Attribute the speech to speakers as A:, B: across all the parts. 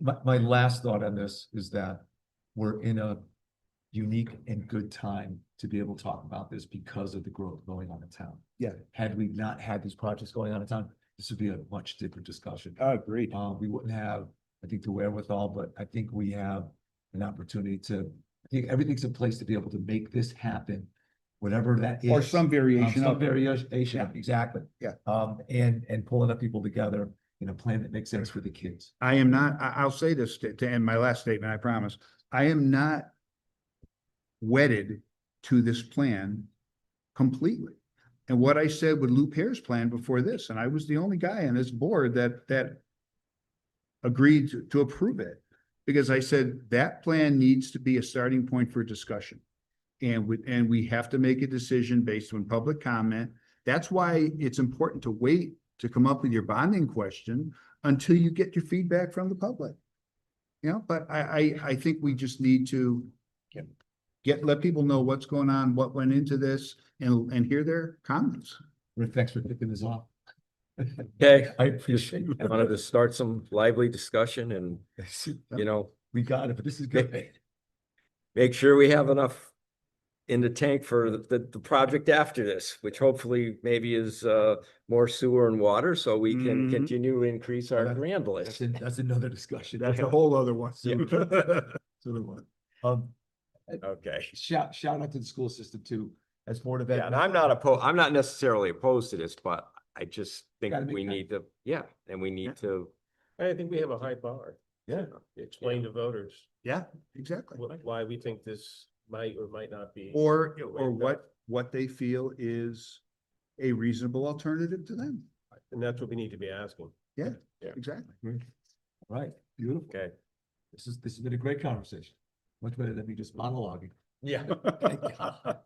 A: my, my last thought on this is that we're in a unique and good time to be able to talk about this because of the growth going on in town.
B: Yeah.
A: Had we not had these projects going on in town, this would be a much different discussion.
B: I agree.
A: Uh, we wouldn't have, I think, the wherewithal, but I think we have an opportunity to, I think everything's in place to be able to make this happen, whatever that is.
B: Or some
A: Um,
B: variation
A: Some
B: of. it.
A: variation, of-
B: Yeah.
A: exactly.
B: Yeah.
A: Um, and, and pulling up people together in a plan that makes sense for the kids.
B: I am not, I, I'll say this to, to end my last statement, I promise. I am not wedded to this plan completely. And what I said with Lou Pear's plan before this, and I was the only guy on this board that, that agreed to, to approve it. Because I said that plan needs to be a starting point for discussion. And with, and we have to make a decision based on public comment. That's why it's important to wait to come up with your bonding question until you get your feedback from the public. You know, but I, I, I think we just need to get, let people know what's going on, what went into this, and, and hear their comments.
A: Rick, thanks for picking this off.
C: Okay,
A: I appreciate
C: I wanted to start some lively discussion and,
A: it.
C: you know,
A: We got it, but this is good.
C: make sure we have enough in the tank for the, the, the project after this, which hopefully maybe is, uh, more sewer and water, so we can
B: Mhm.
C: continue to increase our
A: That-
C: grand
A: Mm-hmm. That's,
C: list.
A: an- that's another discussion.
B: whole other one.
A: Yeah. So the one. Um,
C: Okay.
A: shout, shout out to the school system too, as Board of Ed.
C: Yeah, and I'm not opposed, I'm not necessarily opposed to this, but I just think
A: Gotta make
C: we
A: time.
C: need to, yeah, and we
B: Yeah.
C: need to.
D: I think we have a high bar.
A: Yeah.
D: Explain to voters
B: Yeah, exactly.
D: wh- why we think this might or might not be.
B: Or, or what, what they feel is a reasonable alternative to them.
D: And that's what we need to be asking.
B: Exactly.
A: Right, beautiful.
D: Okay.
A: This is, this has been a great conversation. Much better than me just monologuing.
C: Yeah.
A: Thank God.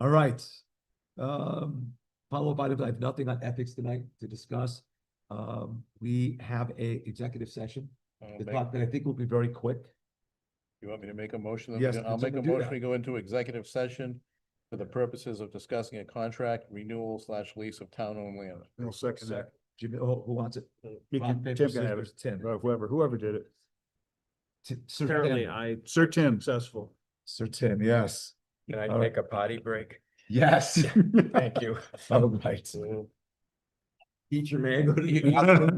A: All right. Um, follow-up items, I have nothing on ethics tonight to discuss. Um, we have a executive session.
C: Um,
E: I'll
A: The
E: make-
A: clock that I think will be very quick.
E: You want me to make a motion? that we
A: Yes,
E: go-
A: can
E: I'll make a
A: someone do
E: motion.
A: that?
E: We go into executive session for the purposes of discussing a contract renewal slash lease of town-owned land.
B: I'll second that.
A: Jimmy, who, who wants it?
B: You
A: Rock,
B: can-
A: paper,
B: Tim can have
A: scissors, Tim.
B: it, or Whoever, whoever did it.
A: Ti- Sir
D: Apparently,
A: Tim.
D: I
B: Sir Tim.
D: successful.
A: Sir Tim, yes.
C: Can I
A: All right.
C: take a potty break?
A: Yes.
C: Thank you.
A: All right.
C: Eat your mango.